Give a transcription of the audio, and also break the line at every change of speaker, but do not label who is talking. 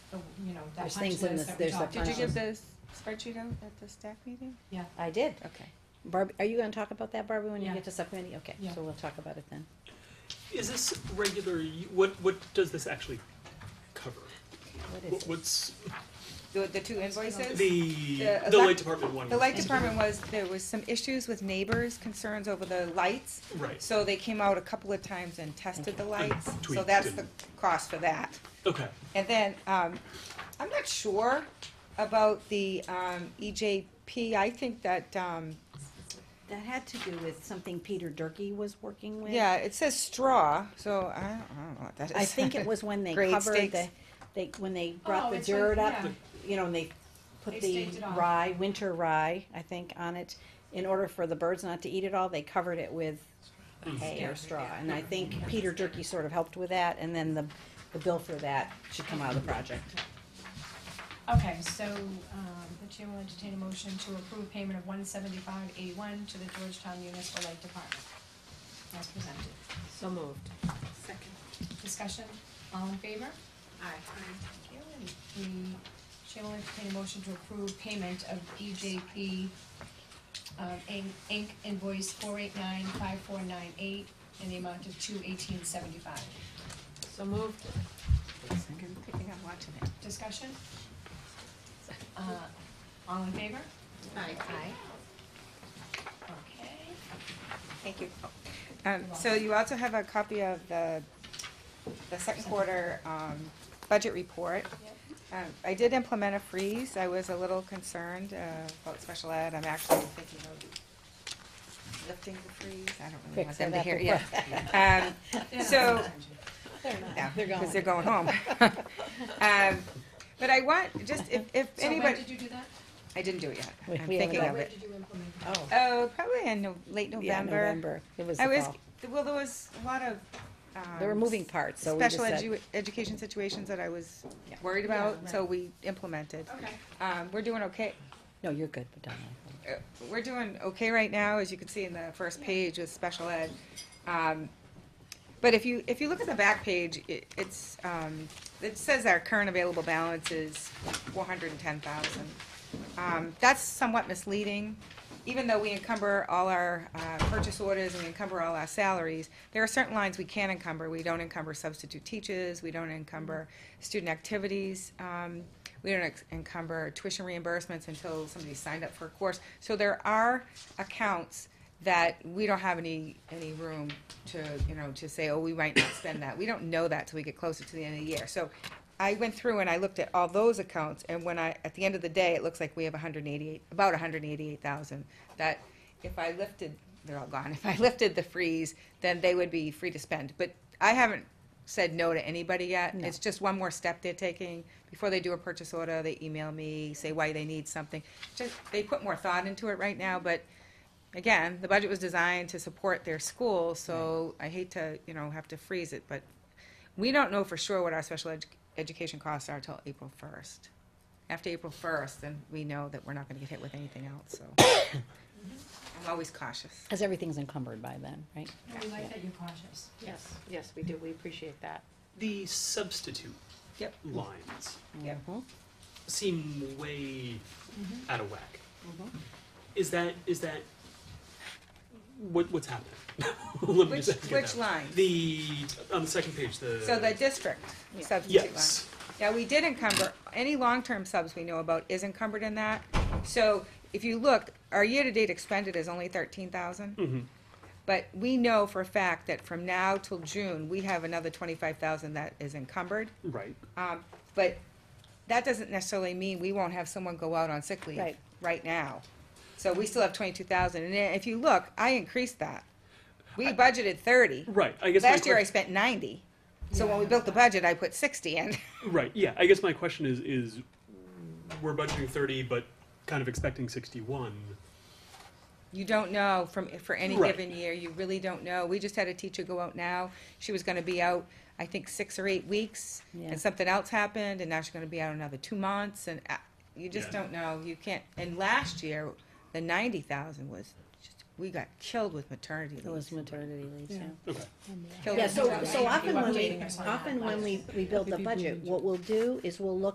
the, Oh, you know, that
There's
punch
things
list
in this-
that we
there's a
talked about.
Did you give
Um,
the spreadsheet out at the staff meeting?
I did.
Okay.
Barbie, are you gonna talk about that, Barbie, when you
Yeah.
get to subcommittee? Okay,
Yeah.
so we'll talk about it then.
Is this regular, u- what, what does this actually cover?
What
What-
is it?
What's,
The, the two invoices?
the,
The
the
elec-
light department one?
The light
was-
department was, there was some issues with neighbors, concerns over the lights.
Right,
So they came out a couple of times and tested the lights, so
tweaked
that's the
and-
cost for that.
okay,
And then, um, I'm not sure about the, um, EJP, I think that, um,
That had to do with something Peter Durkee was working with.
yeah, it says straw, so I don't, I don't know what that is.
I think it was when they
Grade
covered
stakes.
the, they, when they
Oh,
brought the
it's when-
dirt up,
yeah.
you know, and they put
They
the
staked it on.
rye, winter rye, I think, on it. In order for the birds not to eat it all, they covered it with hay
Hmm. Yeah.
or straw. And I think Peter Durkee sort of helped with that, and then the, the bill for that should come out of the project.
Okay, so, um, the chair will entertain a motion to approve payment of one seventy-five eighty-one to the Georgetown Municipal Light Department. As presented.
So moved.
Second.
Discussion, all in favor? Aye. Thank you, and the chair will entertain a motion to approve payment of E EJP, uh, Inc., Inc. invoice four eight nine five four nine eight in the amount of two eighteen seventy-five.
So moved.
I think I'm watching it.
Discussion? Uh, all in favor?
Aye.
Okay.
Thank you. Um, so you also have a copy of the, the second quarter, um, budget report. Um, I did implement a freeze, I was a little concerned, uh, about special ed, I'm actually thinking of lifting the freeze, I don't really want
Fix
them
it
to
up
hear,
before-
yeah. Um, so,
They're
no,
They're going.
cause they're going home. Um, but I want, just if, if
So when
anybody,
did you do that?
I didn't do it yet,
We-
I'm
we haven't
thinking
done
of
When
it.
did you implement that?
Oh,
Oh, probably in no- late
yeah, November. It was the
I was,
fall.
well, there was a lot of, um.
There were moving parts, so we just
Special
said.
edu- education situations that I was
Yeah.
worried
Yeah,
about, so we implemented.
Okay.
Um, we're doing okay,
No, you're good, but don't.
uh, we're doing okay right now, as you can see in the first page with special ed. Um, But if you, if you look at the back page, it, it's, um, it says our current available balance is four hundred and ten thousand. Um, that's somewhat misleading, even though we encumber all our, uh, purchase orders and we encumber all our salaries, there are certain lines we can encumber, we don't encumber substitute teachers, we don't encumber student activities, um, we don't ex- encumber tuition reimbursements until somebody's signed up for a course. So there are accounts that we don't have any, any room to, you know, to say, oh, we might not spend that. We don't know that till we get closer to the end of the year. So I went through and I looked at all those accounts, and when I, at the end of the day, it looks like we have hundred and eighty-eight, about hundred and eighty-eight thousand, that if I lifted, they're all gone, if I lifted the freeze, then they would be free to spend. But I haven't said no to anybody yet.
No.
It's just one more step they're taking. Before they do a purchase order, they email me, say why they need something. Just, they put more thought into it right now, but again, the budget was designed to support their school, so I hate to, you know, have to freeze it, but we don't know for sure what our special edu- education costs are till April first. After April first, then we know that we're not gonna get hit with anything else, so. I'm always cautious.
Because everything's encumbered by then, right?
No, we like that you're cautious.
Yes, yes, we do. We appreciate that.
the substitute
Yep.
lines
Yep.
Mhm.
seem way
Mm-hmm.
out of whack.
Mm-hmm.
Is that, is that, what, what's happening? Let me
Which,
just ask you
which
that.
line?
The, on the second page, the.
So the district
Yeah.
substitute line.
Yes,
Yeah, we did encumber, any long-term subs we know about is encumbered in that. So if you look, our year-to-date expended is only thirteen
Mhm.
But we know for a fact that from now till June, we have another twenty-five thousand that is encumbered.
right,
Um, but that doesn't necessarily mean we won't have someone go out on sick leave
Right.
right now. So we still have twenty-two thousand, and if you look, I increased that. We budgeted thirty.
right, I guess. my
Last year I
question-
spent ninety. So when we built the budget, I put sixty in.
Right. Yeah. I guess my question is is we're budgeting thirty, but kind of expecting sixty one.
You don't know from, for any
Right.
given year, you really don't know. We just had a teacher go out now, she was gonna be out, I think, six or eight weeks,
Yeah.
and something else happened, and now she's gonna be out another two months, and uh, you just
Yeah.
don't know, you can't, and last year, the ninety thousand was, just we got killed with maternity
It was
leaves.
maternity leaves, yeah.
Okay.
Killed
Yeah,
with
so,
maternity
so
leaves.
often when we,
Updating us on that
often when
last.
we, we build the budget, what we'll do is we'll look